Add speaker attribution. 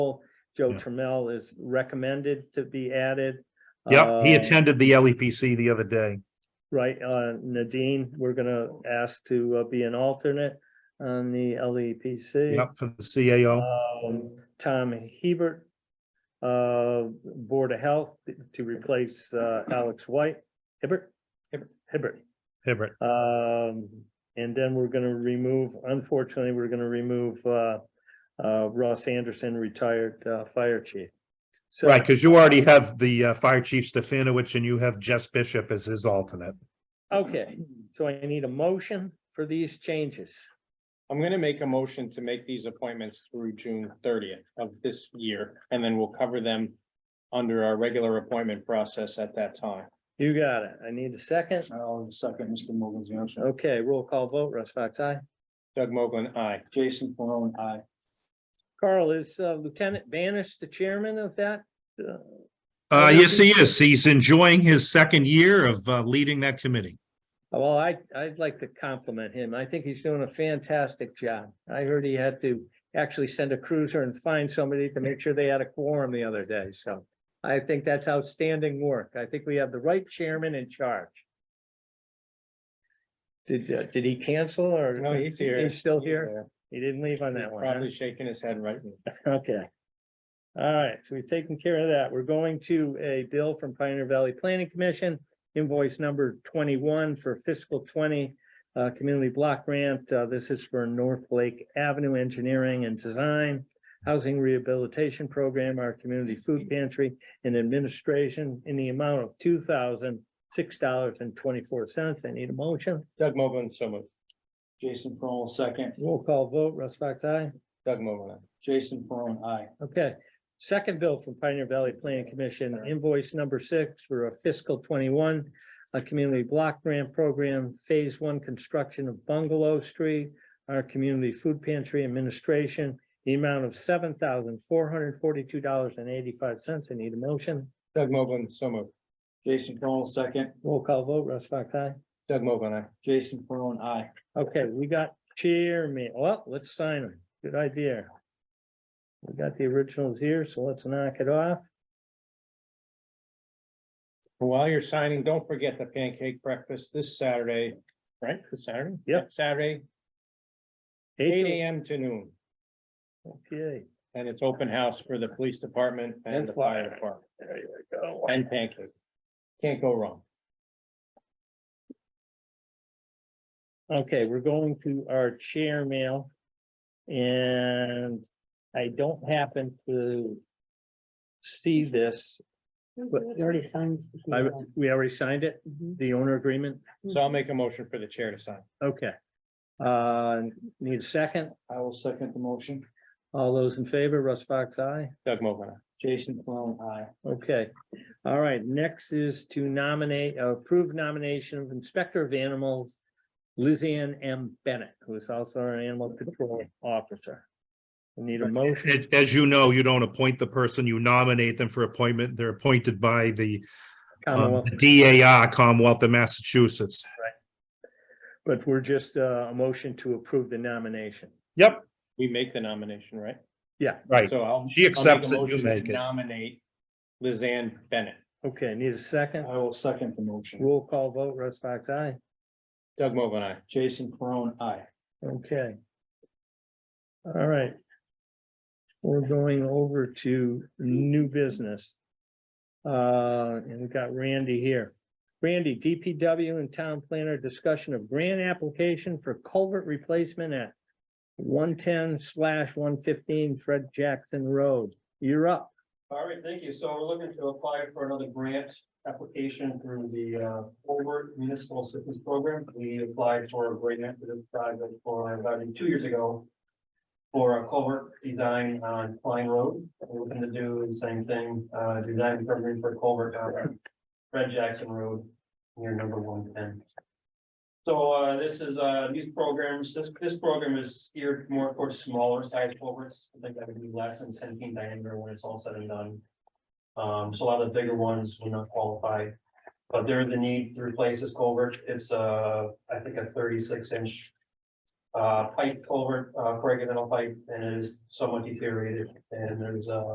Speaker 1: Joe
Speaker 2: Yeah.
Speaker 1: Trammell is recommended to be added.
Speaker 2: Yep, he
Speaker 1: Um,
Speaker 2: attended the LEPC the other day.
Speaker 1: Right, uh, Nadine, we're gonna ask to uh, be an alternate on the LEPC.
Speaker 2: Yep, for the CAO.
Speaker 1: Um, Tom Hebert, uh, Board of Health to replace, uh, Alex White, Hibbert, Hibbert, Hibbert.
Speaker 2: Hibbert.
Speaker 1: Um, and then we're gonna remove, unfortunately, we're gonna remove, uh, uh, Ross Anderson, retired, uh, fire chief. So-
Speaker 2: Right, because you already have the uh, Fire Chief Stefanowicz and you have Jess Bishop as his alternate.
Speaker 1: Okay, so I need a motion for these changes.
Speaker 3: I'm gonna make a motion to make these appointments through June thirtieth of this year, and then we'll cover them under our regular appointment process at that time.
Speaker 1: You got it. I need a second.
Speaker 3: I'll second Mr. Morgan's motion.
Speaker 1: Okay, roll call vote, Russ Fox, aye.
Speaker 3: Doug Mogul, aye. Jason Peron, aye.
Speaker 1: Carl, is uh, Lieutenant Banish the chairman of that? Uh,
Speaker 2: Uh,
Speaker 1: Okay.
Speaker 2: yes, he is. He's enjoying his second year of uh, leading that committee.
Speaker 1: Well, I, I'd like to compliment him. I think he's doing a fantastic job. I heard he had to actually send a cruiser and find somebody to make sure they had a quorum the other day, so. I think that's outstanding work. I think we have the right chairman in charge. Did, uh, did he cancel or?
Speaker 3: No, he's here.
Speaker 1: He's still here?
Speaker 3: there.
Speaker 1: He didn't leave on
Speaker 3: He's
Speaker 1: that one, huh?
Speaker 3: Probably shaking his head right now.
Speaker 1: Okay. All right, so we've taken care of that. We're going to a bill from Pioneer Valley Planning Commission, invoice number twenty-one for fiscal twenty. Uh, community block grant. Uh, this is for North Lake Avenue Engineering and Design. Housing Rehabilitation Program, our community food pantry and administration in the amount of two thousand six dollars and twenty-four cents. I need a motion.
Speaker 3: Doug Mogul, so moved. Jason Peron, second.
Speaker 1: Roll call vote. Russ Fox, aye.
Speaker 3: Doug Mogul, aye. Jason Peron, aye.
Speaker 1: Okay, second bill from Pioneer Valley Planning Commission, invoice number six for a fiscal twenty-one. A community block grant program, phase one construction of Bungalow Street, our community food pantry administration. The amount of seven thousand four hundred forty-two dollars and eighty-five cents. I need a motion.
Speaker 3: Doug Mogul, so moved. Jason Peron, second.
Speaker 1: Roll call vote, Russ Fox, aye.
Speaker 3: Doug Mogul, aye. Jason Peron, aye.
Speaker 1: Okay, we got chairman. Well, let's sign them. Good idea. We got the originals here, so let's knock it off.
Speaker 3: While you're signing, don't forget the pancake breakfast this Saturday, right? This Saturday?
Speaker 1: Yep.
Speaker 3: Saturday, eight AM to noon,
Speaker 1: Okay.
Speaker 3: and it's open house for the police department
Speaker 1: And
Speaker 3: and the fire
Speaker 1: fire.
Speaker 3: department,
Speaker 1: There you go.
Speaker 3: and pancake. Can't go wrong.
Speaker 1: Okay, we're going to our chair mail. And I don't happen to see this. But-
Speaker 4: You already signed. the,
Speaker 1: I,
Speaker 4: um,
Speaker 1: we already signed it,
Speaker 4: mhm.
Speaker 1: the owner agreement.
Speaker 3: So I'll make a motion for the chair to sign.
Speaker 1: Okay. Uh, need a second?
Speaker 3: I will second the motion.
Speaker 1: All those in favor, Russ Fox, aye.
Speaker 3: Doug Mogul, Jason Peron, aye.
Speaker 1: Okay, all right, next is to nominate, uh, approve nomination of Inspector of Animals, Lizanne M. Bennett, who is also our Animal Control Officer. We Need a motion?
Speaker 2: As- As you know, you don't appoint the person, you nominate them for appointment. They're appointed by the um,
Speaker 1: Commonwealth,
Speaker 2: DAR Commonwealth of Massachusetts.
Speaker 1: but we're just uh, a motion to approve the nomination.
Speaker 2: Yep,
Speaker 3: We make the nomination, right?
Speaker 2: right.
Speaker 3: So I'll.
Speaker 2: She
Speaker 3: I'll make a
Speaker 2: accepts it, you
Speaker 3: motion to
Speaker 2: make it.
Speaker 3: Nominate Lizanne Bennett.
Speaker 1: Okay, need a second?
Speaker 3: will second the motion.
Speaker 1: Roll call vote, Russ Fox, aye.
Speaker 3: Doug Mogul, aye. Jason Peron, aye.
Speaker 1: Okay. All right. We're going over to new business. Uh, and we've got Randy here. Randy, DPW and town planner discussion of grant application for culvert replacement at one ten slash one fifteen Fred Jackson Road. You're up.
Speaker 5: All right, thank you. So we're looking to apply for another grant application through the uh Forward Municipal Assistance Program. We applied for a grant for this project for about two years ago. For a culvert design on Klein Road. We're looking to do the same thing, uh design program for culvert on Fred Jackson Road, near number one ten. So uh this is uh these programs, this this program is geared more towards smaller size culverts. I think that would be less than ten feet diameter when it's all said and done. Um, so a lot of the bigger ones will not qualify, but there is the need to replace this culvert. It's uh, I think a thirty-six inch uh, pipe culvert, uh, for pipe, and it is somewhat deteriorated, and there's, uh,